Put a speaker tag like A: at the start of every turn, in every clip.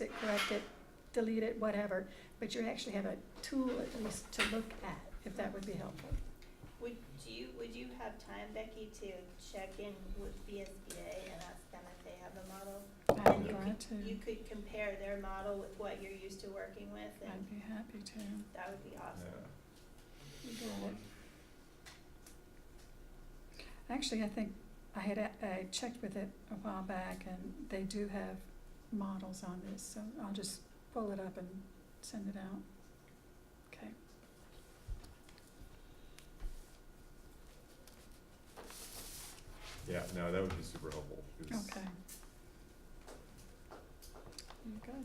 A: it, correct it, delete it, whatever, but you actually have a tool at least to look at, if that would be helpful.
B: Would you, would you have time, Becky, to check in with BSBA and ask them if they have a model?
A: I'd
B: And
A: be
B: you
A: glad
B: could-
A: to,
B: You could compare their model with what you're used to working with, and
A: I'd be happy to.
B: that would be awesome.
A: You got it. Actually, I think I had, a- I checked with it a while back and they do have models on this, so I'll just pull it up and send it out. Okay.
C: Yeah, no, that would be super helpful. 'cause-
A: Okay. You got it.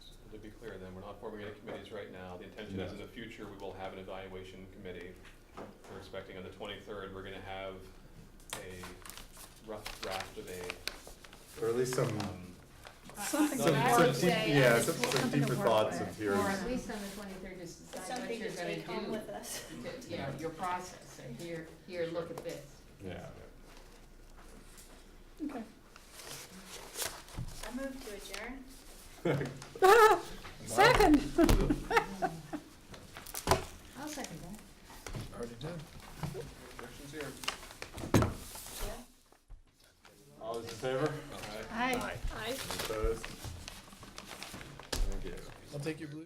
D: So To be clear then, we're not forming any committees right now. The intention is in the future, we will have an evaluation committee. We're expecting on the twenty-third, we're gonna have a rough draft of a,
C: Or at least some,
D: um,
A: Something
C: some,
A: to
E: I
C: some
E: would
C: deep,
E: say uh,
C: yeah,
E: at
C: some,
E: this
C: some
A: point-
C: deeper thoughts and
E: Or
C: theories.
E: at least on the twenty-third, just decide what
B: Something
E: you're
B: to
E: gonna
B: take home
E: do,
B: with us.
E: to- you know, your process, and here, here, look at this.
C: Yeah.
A: Okay.
B: I move to adjourn.
A: Second.
E: I'll second that.
F: Already did.
D: Questions here?
B: Yeah.
C: All those in favor?
D: All right.
A: Aye.
C: Opposed? Thank you.
F: I'll take your blue